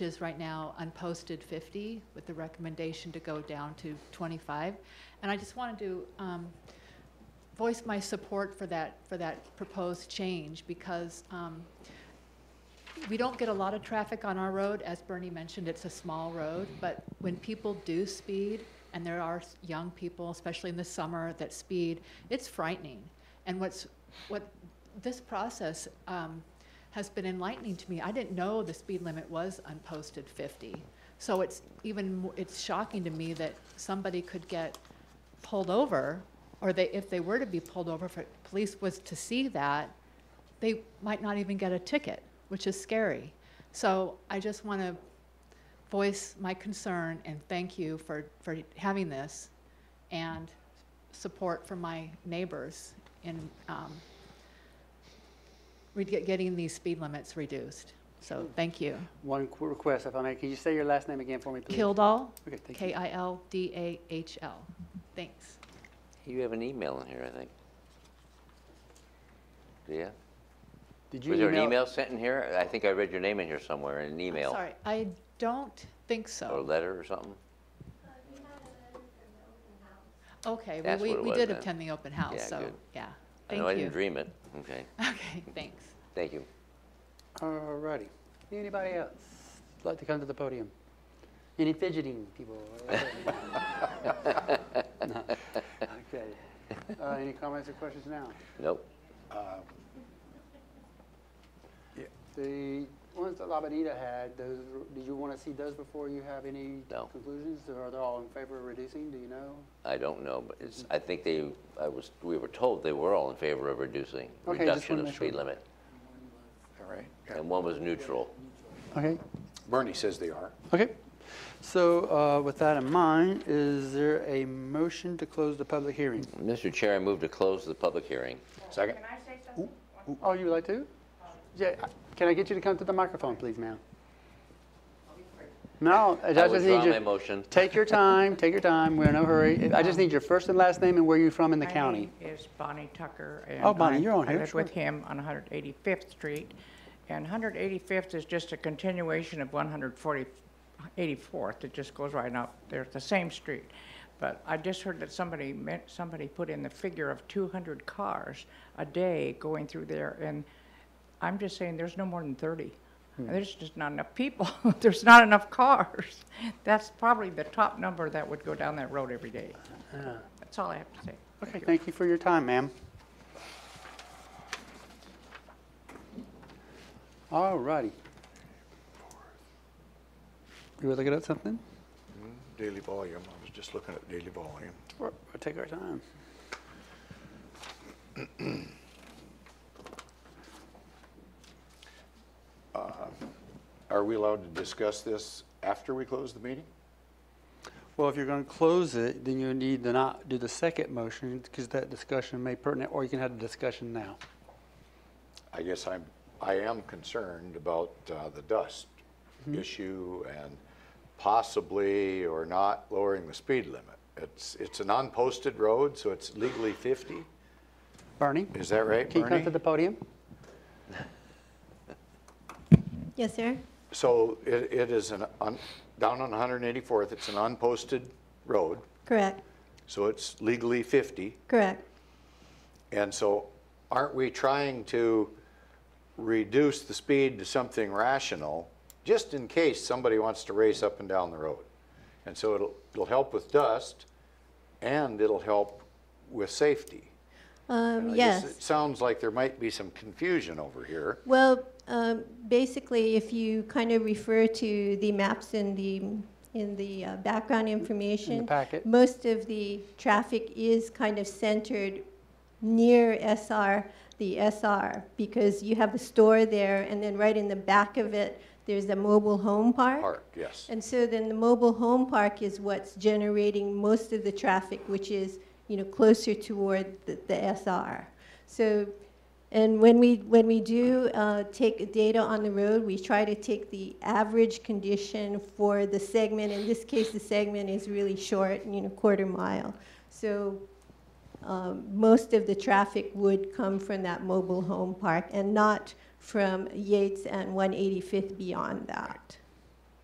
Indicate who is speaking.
Speaker 1: is right now unposted 50 with the recommendation to go down to 25. And I just wanted to um, voice my support for that, for that proposed change because um, we don't get a lot of traffic on our road. As Bernie mentioned, it's a small road, but when people do speed, and there are s- young people, especially in the summer, that speed, it's frightening. And what's, what, this process um, has been enlightening to me. I didn't know the speed limit was unposted 50. So it's even, mo- it's shocking to me that somebody could get pulled over, or they, if they were to be pulled over, if the police was to see that, they might not even get a ticket, which is scary. So I just want to voice my concern and thank you for, for having this and support from my neighbors in um, re- get- getting these speed limits reduced. So
Speaker 2: Mm.
Speaker 1: thank you.
Speaker 3: One qu- request, if I may, can you say your last name again for me, please?
Speaker 1: Kildall,
Speaker 3: Okay, thank you.
Speaker 1: K-I-L-D-A-H-L. Thanks.
Speaker 2: You have an email in here, I think. Yeah?
Speaker 3: Did you
Speaker 2: Was there an email sent in here? I think I read your name in here somewhere, in an
Speaker 1: I'm
Speaker 2: email.
Speaker 1: Sorry, I don't think
Speaker 2: Or a
Speaker 1: so.
Speaker 2: letter or something?
Speaker 1: Okay, well,
Speaker 2: That's
Speaker 1: we,
Speaker 2: what it
Speaker 1: we
Speaker 2: was
Speaker 1: did
Speaker 2: then.
Speaker 1: attend the open house,
Speaker 2: Yeah,
Speaker 1: so,
Speaker 2: good.
Speaker 1: yeah.
Speaker 2: I
Speaker 1: Thank
Speaker 2: know I didn't
Speaker 1: you.
Speaker 2: dream it. Okay,
Speaker 1: Okay, thanks.
Speaker 2: thank you.
Speaker 3: All righty. Anybody else like to come to the podium? Any fidgeting people? No. Okay. Uh, Any comments or questions now?
Speaker 2: Nope.
Speaker 3: The ones that Labanita had, those, did you want to see those before you have any
Speaker 2: No.
Speaker 3: conclusions? Or Are they all in favor of reducing, do you know?
Speaker 2: I don't know, but it's, I think they, I was, we were told they were all in favor of reducing,
Speaker 3: Okay, just
Speaker 2: reduction
Speaker 3: wanna
Speaker 2: of
Speaker 3: make sure.
Speaker 2: speed limit.
Speaker 4: All right.
Speaker 2: And one was neutral.
Speaker 3: Okay,
Speaker 4: Bernie says they are.
Speaker 3: okay. So uh, with that in mind, is there a motion to close the public hearing?
Speaker 2: Mr. Chair, I move to close the public hearing.
Speaker 4: Second?
Speaker 5: Can I say something?
Speaker 3: Oh, you would like to? Yeah, I- can I get you to come to the microphone, please, ma'am? No, I
Speaker 2: I
Speaker 3: just need you.
Speaker 2: withdraw my motion.
Speaker 3: Take your time, take your time, we're in no hurry. I just need your first and last name and where you're from in the county.
Speaker 5: My name is Bonnie Tucker. and
Speaker 3: Oh, Bonnie,
Speaker 5: I-
Speaker 3: you're on here,
Speaker 5: I live
Speaker 3: sure.
Speaker 5: with him on 185th Street. And 185th is just a continuation of 140, 84th. It just goes right up. They're the same street. But I just heard that somebody, meant- somebody put in the figure of 200 cars a day going through there. And I'm just saying, there's no more than 30.
Speaker 3: Hmm.
Speaker 5: And There's just not enough people. There's not enough cars. That's probably the top number that would go down that road every day. That's all I have to say.
Speaker 3: Okay, thank you for your time, ma'am. All righty. You were looking at something?
Speaker 4: Daily volume, I was just looking at daily volume.
Speaker 3: We'll we'll take our time.
Speaker 4: Are we allowed to discuss this after we close the meeting?
Speaker 3: Well, if you're going to close it, then you need to not do the second motion because that discussion may pertinent, or you can have the discussion now.
Speaker 4: I guess I'm, I am concerned about uh, the dust
Speaker 3: Mm-hmm.
Speaker 4: issue and possibly or not lowering the speed limit. It's, it's an unposted road, so it's legally 50.
Speaker 3: Bernie,
Speaker 4: Is that right,
Speaker 3: can you come to
Speaker 4: Bernie?
Speaker 3: the podium?
Speaker 6: Yes, sir.
Speaker 4: So it, it is an, un- down on 184th, it's an unposted road,
Speaker 6: Correct,
Speaker 4: so it's legally 50.
Speaker 6: correct.
Speaker 4: And so aren't we trying to reduce the speed to something rational, just in case somebody wants to race up and down the road? And so it'll, it'll help with dust and it'll help with safety. And
Speaker 6: Um,
Speaker 4: I guess It
Speaker 6: yes.
Speaker 4: sounds like there might be some confusion over here.
Speaker 6: Well, um, basically, if you kind of refer to the maps in the, in the uh, background information.
Speaker 3: packet.
Speaker 6: Most of the traffic is kind of centered near SR, the SR, because you have the store there, and then right in the back of it, there's a mobile home
Speaker 4: Park, yes.
Speaker 6: And so then the mobile home park is what's generating most of the traffic, which is, you know, closer toward the, the SR. So, and when we, when we do uh, take data on the road, we try to take the average condition for the segment. In this case, the segment is really short, you know, quarter mile. So um, most of the traffic would come from that mobile home park and not from Yates and 185th beyond that.